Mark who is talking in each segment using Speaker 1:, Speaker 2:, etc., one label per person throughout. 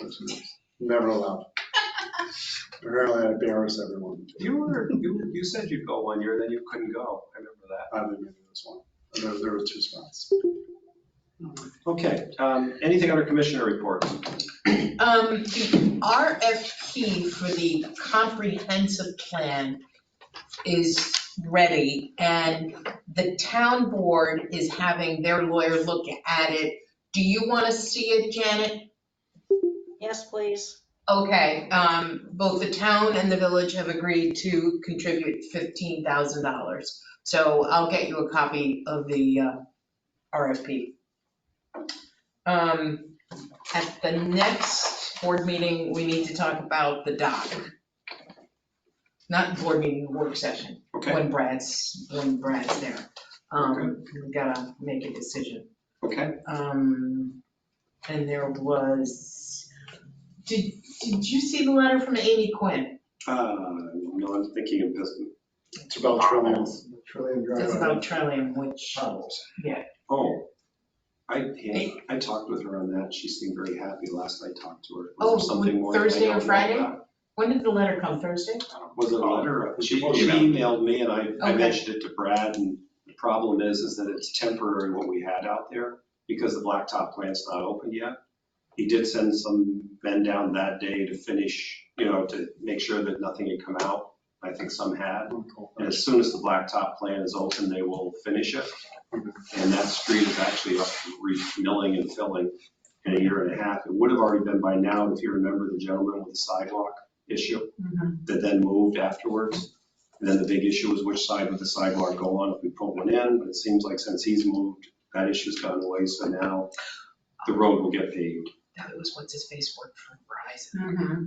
Speaker 1: those groups. Never allowed. Apparently I embarrass everyone.
Speaker 2: You were, you, you said you'd go one year, and then you couldn't go. I remember that.
Speaker 1: I didn't make it this one. There, there were two spots.
Speaker 2: Okay, um, anything under commissioner reports?
Speaker 3: Um, the RFP for the comprehensive plan is ready and the town board is having their lawyer look at it. Do you want to see it, Janet?
Speaker 4: Yes, please.
Speaker 3: Okay, um, both the town and the village have agreed to contribute fifteen thousand dollars. So I'll get you a copy of the, uh, RFP. Um, at the next board meeting, we need to talk about the dock. Not board meeting, work session,
Speaker 2: Okay,
Speaker 3: when Brad's, when Brad's there. Um, we gotta make a decision.
Speaker 2: okay.
Speaker 3: Um, and there was, did, did you see the letter from Amy Quinn?
Speaker 2: Uh, no, I'm thinking of this.
Speaker 1: It's about trillions.
Speaker 5: Trillion
Speaker 3: It's
Speaker 5: drive.
Speaker 3: about Trillium, which,
Speaker 2: Oh, I, yeah, I talked with her on that. She seemed very happy last I talked to her. Was there
Speaker 3: Oh, was
Speaker 2: something more that I
Speaker 3: Thursday or
Speaker 2: don't know
Speaker 3: Friday?
Speaker 2: about?
Speaker 3: when did the letter come, Thursday?
Speaker 2: Was it a letter? or- She she
Speaker 1: Email.
Speaker 2: emailed me and I, I
Speaker 3: Okay.
Speaker 2: mentioned it to Brad and the problem is, is that it's temporary what we had out there because the blacktop plant's not open yet. He did send some men down that day to finish, you know, to make sure that nothing had come out. I think some had. And as soon as the blacktop plant is open, they will finish it. And that street is actually up to re-milling and filling in a year and a half. It would have already been by now, if you remember the gentleman with the sidewalk issue that then moved afterwards. And then the big issue was which side would the sidewalk go on if we put one in, but it seems like since he's moved, that issue's gone away, so now the road will get paved.
Speaker 3: That was what's his face work for Verizon.
Speaker 4: Mm-hmm.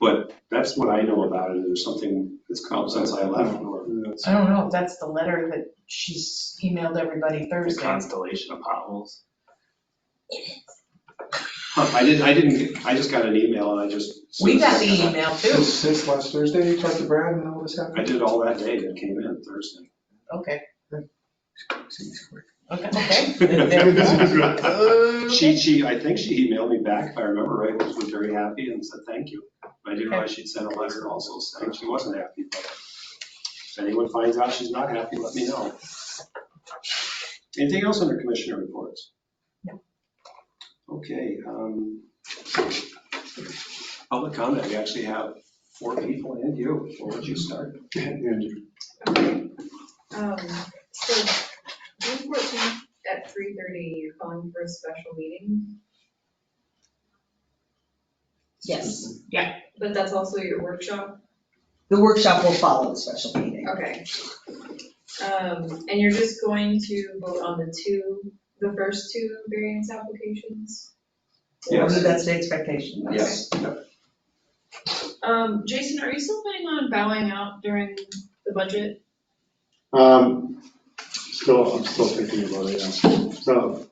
Speaker 2: But that's what I know about it. There's something that's come since I left or
Speaker 1: That's-
Speaker 3: I don't know if that's the letter that she's emailed everybody Thursday.
Speaker 6: constellation of potholes.
Speaker 2: I didn't, I didn't, I just got an email and I just.
Speaker 3: We got the email too,
Speaker 5: Since, since last Thursday, you talked to Brad and all this
Speaker 2: I
Speaker 5: happened?
Speaker 2: did all that day that came in Thursday.
Speaker 3: okay,
Speaker 5: Seems quick.
Speaker 3: okay, okay.
Speaker 2: She, she, I think she emailed me back, if I remember right, was was very happy and said thank you. But I didn't realize she'd sent a letter also saying she wasn't happy. but If anyone finds out she's not happy, let me know. Anything else under commissioner reports?
Speaker 3: No.
Speaker 2: Okay, um, public comment, we actually have four people and you. Where would you start?
Speaker 1: And
Speaker 7: Um, so, June fourteenth at three thirty, you're calling for a special meeting,
Speaker 4: Yes.
Speaker 7: but that's also your workshop?
Speaker 4: The workshop will follow the special meeting.
Speaker 7: Okay. Um, and you're just going to vote on the two, the first two variance applications?
Speaker 2: Yes.
Speaker 4: That's the expectation.
Speaker 2: Yes.
Speaker 7: Um, Jason, are you still planning on bowing out during the budget?
Speaker 1: Um, still, I'm still thinking about it, yeah. So,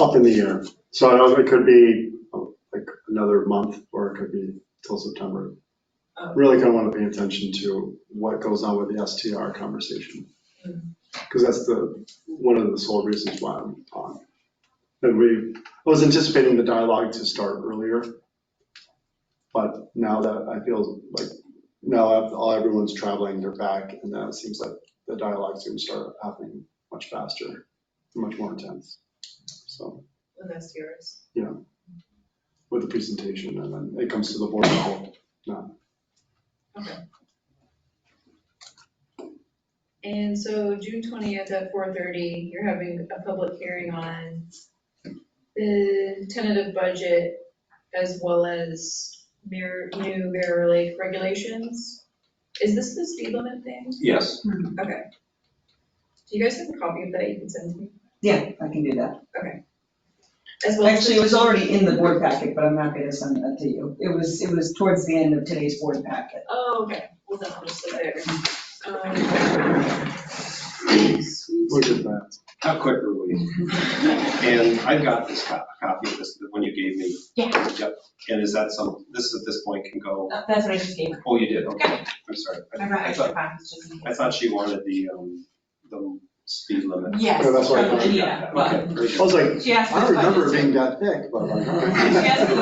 Speaker 1: up in the air. So I don't- it could be oh, like another month, or it could be till September.
Speaker 7: Um,
Speaker 1: Really kind of want to pay attention to what goes on with the STR conversation. Because that's the, one of the sole reasons why I'm on. And we, I was anticipating the dialogue to start earlier. But now that I feel like, now all everyone's traveling, they're back, and that seems like the dialogue's gonna start happening much faster, much more intense. So,
Speaker 7: And that's yours.
Speaker 1: with the presentation, and then it comes to the board level.
Speaker 7: And so June twentieth at four thirty, you're having a public hearing on the tentative budget as well as mirror, new Mirror Lake regulations. Is this the speed limit thing?
Speaker 2: Yes.
Speaker 7: Okay. Do you guys have a copy of that you can send to me?
Speaker 4: Yeah, I can do that.
Speaker 7: As well as,
Speaker 4: Actually, it was already in the board packet, but I'm not gonna send that to you. It was, it was towards the end of today's board packet.
Speaker 7: oh, okay, well, then I'll just leave there. Um, sweet.
Speaker 1: Look at that.
Speaker 2: How quick are we? And I've got this co- copy of this, the one you gave me.
Speaker 3: Yeah.
Speaker 2: Yep. And is that some, this at this point can go,
Speaker 3: That's what I just gave her.
Speaker 2: oh, you did, okay. I'm sorry. I- I thought,
Speaker 3: copies just in
Speaker 2: I thought she wanted the, um, the speed limit.
Speaker 1: Yeah, that's what I
Speaker 3: Yes,
Speaker 1: thought.
Speaker 3: yeah, but
Speaker 2: Okay, very good.
Speaker 1: I was like,
Speaker 3: she asked
Speaker 1: I don't
Speaker 3: me if I
Speaker 1: remember
Speaker 3: just
Speaker 1: it
Speaker 3: did.
Speaker 1: being that thick, but like. all right.
Speaker 3: She asked me